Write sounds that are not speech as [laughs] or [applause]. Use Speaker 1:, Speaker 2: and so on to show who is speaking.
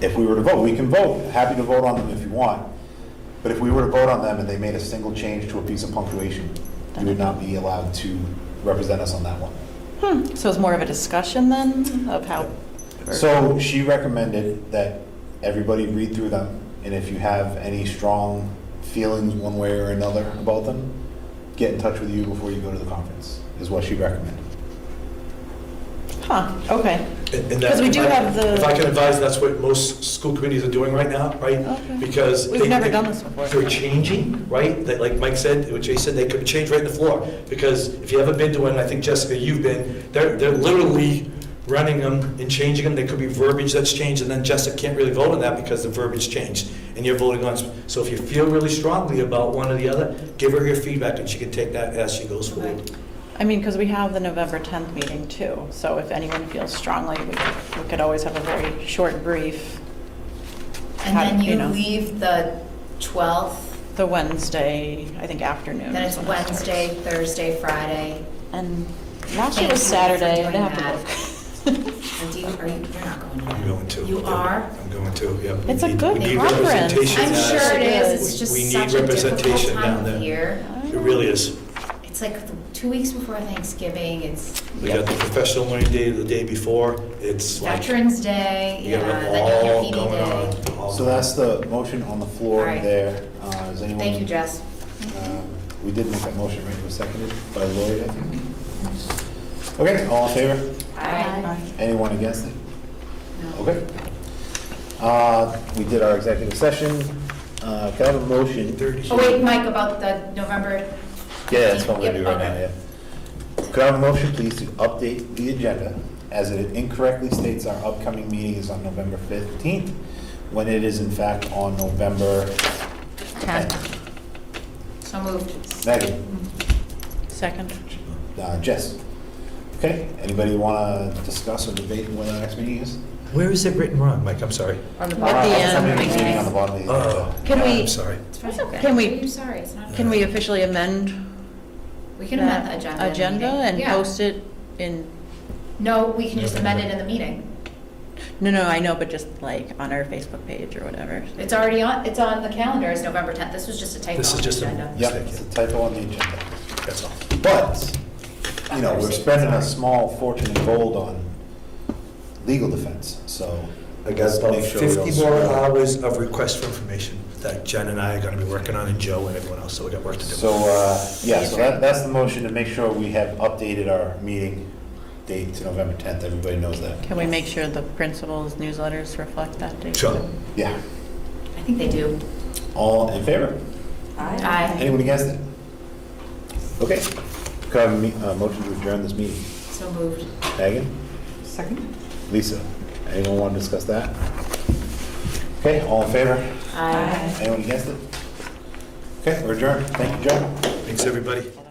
Speaker 1: if we were to vote, we can vote, happy to vote on them if you want. But if we were to vote on them and they made a single change to a piece of punctuation, you would not be allowed to represent us on that one.
Speaker 2: Hmm, So it's more of a discussion then of how,
Speaker 1: So she recommended that everybody read through them, and if you have any strong feelings one way or another about them, get in touch with you before you go to the conference, is what she recommended.
Speaker 2: huh, okay.
Speaker 3: Because
Speaker 2: 'Cause we do have the-
Speaker 3: If I can advise, that's what most school committees are doing right now, right?
Speaker 2: Okay.
Speaker 3: Because.
Speaker 2: We've
Speaker 3: they-
Speaker 2: never
Speaker 3: they-
Speaker 2: done this before.
Speaker 3: They're changing, right? That, like Mike said, what Jay said, they could change right in the floor. Because if you haven't been to one, I think Jessica, you've been, they're, they're literally running them and changing them. There could be verbiage that's changed, and then Jessica can't really vote on that because the verbiage changed. And you're voting on, so if you feel really strongly about one or the other, give her your feedback, and she can take that as she goes forward.
Speaker 2: I mean, because we have the November 10th meeting too, so if anyone feels strongly, we could- we could always have a very short brief,
Speaker 4: And then
Speaker 2: you
Speaker 4: you
Speaker 2: know.
Speaker 4: leave the 12th,
Speaker 2: the Wednesday, I think afternoon.
Speaker 4: then
Speaker 2: is
Speaker 4: it's
Speaker 2: when it starts.
Speaker 4: Wednesday, Thursday, Friday.
Speaker 2: And last year
Speaker 4: Thank you for
Speaker 2: was Saturday, I'd
Speaker 4: doing
Speaker 2: have to [laughs] look.
Speaker 4: Or do you, are you, you're not going to that?
Speaker 3: I'm going to.
Speaker 4: You are?
Speaker 3: I'm going to, yep. We
Speaker 2: It's a
Speaker 3: need-
Speaker 2: good
Speaker 3: we need
Speaker 2: conference.
Speaker 3: representation
Speaker 4: I'm
Speaker 3: down
Speaker 4: sure it
Speaker 3: there.
Speaker 4: is, it's
Speaker 3: We-
Speaker 4: just
Speaker 3: we need
Speaker 4: such a difficult
Speaker 3: representation down
Speaker 4: time
Speaker 3: there.
Speaker 4: of year.
Speaker 3: It really is.
Speaker 4: It's like the two weeks before Thanksgiving, it's
Speaker 3: We got the professional learning day the day before. It's like.
Speaker 4: Veterans Day,
Speaker 3: We
Speaker 4: yeah,
Speaker 3: have them
Speaker 4: then
Speaker 3: all
Speaker 4: you have
Speaker 3: going on.
Speaker 4: PD Day.
Speaker 3: all
Speaker 1: So that's the motion on the floor
Speaker 4: All right.
Speaker 1: there. Uh, Is anyone?
Speaker 4: Thank you, Jess.
Speaker 1: Um, We did make that motion, right? It was seconded by Lori, I think. Okay, all in favor?
Speaker 4: All right.
Speaker 2: Aye.
Speaker 1: Anyone against it?
Speaker 4: No.
Speaker 1: Okay. Uh, We did our executive session. Uh, Can I have a motion?
Speaker 3: Thirty.
Speaker 4: Oh, wait, Mike, about the November,
Speaker 1: Yeah, that's what we're gonna do
Speaker 4: Yep,
Speaker 1: right now,
Speaker 4: okay.
Speaker 1: yeah. Could I have a motion, please, to update the agenda as it incorrectly states our upcoming meeting is on November 15th, when it is in fact on November 10th?
Speaker 4: so moved.
Speaker 1: Megan,
Speaker 2: Second.
Speaker 1: uh, Jess. Okay, anybody want to discuss or debate when our next meeting is?
Speaker 3: Where is it written wrong, Mike? I'm sorry.
Speaker 4: On the
Speaker 2: At
Speaker 4: bottom.
Speaker 2: the end.
Speaker 1: Somebody's meeting on the bottom of the
Speaker 3: Oh.
Speaker 1: agenda.
Speaker 2: Can we-
Speaker 3: I'm sorry.
Speaker 4: It's okay.
Speaker 2: Can we-
Speaker 4: I'm sorry, it's not.
Speaker 2: Can we officially amend?
Speaker 4: We can
Speaker 2: that
Speaker 4: amend the agenda. in the
Speaker 2: Agenda
Speaker 4: meeting.
Speaker 2: and
Speaker 4: Yeah.
Speaker 2: post it in,
Speaker 4: No, we can just amend it in the meeting.
Speaker 2: no, no, I know, but just like on our Facebook page or whatever.
Speaker 4: It's already on, it's on the calendar as November 10th. This was just a typo.
Speaker 3: This is
Speaker 4: on the
Speaker 3: just a-
Speaker 4: agenda.
Speaker 1: Yep, it's a typo on the agenda.
Speaker 3: That's all.
Speaker 1: But, you know, we're spending a small fortune in gold on legal defense, so.
Speaker 3: I got
Speaker 1: let's
Speaker 3: about
Speaker 1: make sure we don't
Speaker 3: 50 more
Speaker 1: screw up.
Speaker 3: hours of requests for information that Jen and I are going to be working on, and Joe and everyone else, so we got work to do.
Speaker 1: So, uh, yeah, so that, that's the motion to make sure we have updated our meeting date to November 10th. Everybody knows that.
Speaker 2: Can we make sure the principal's newsletters reflect that date?
Speaker 3: Sure.
Speaker 1: Yeah.
Speaker 4: I think they do.
Speaker 1: All in favor?
Speaker 4: Aye.
Speaker 1: Anyone against it? Okay. Could I have a me- uh, motion to adjourn this meeting?
Speaker 4: So moved.
Speaker 1: Megan? Second. Lisa? Anyone want to discuss that? Okay, all in favor?
Speaker 4: Aye.
Speaker 1: Anyone against it? Okay, we're adjourned. Thank you, John.
Speaker 3: Thanks, everybody.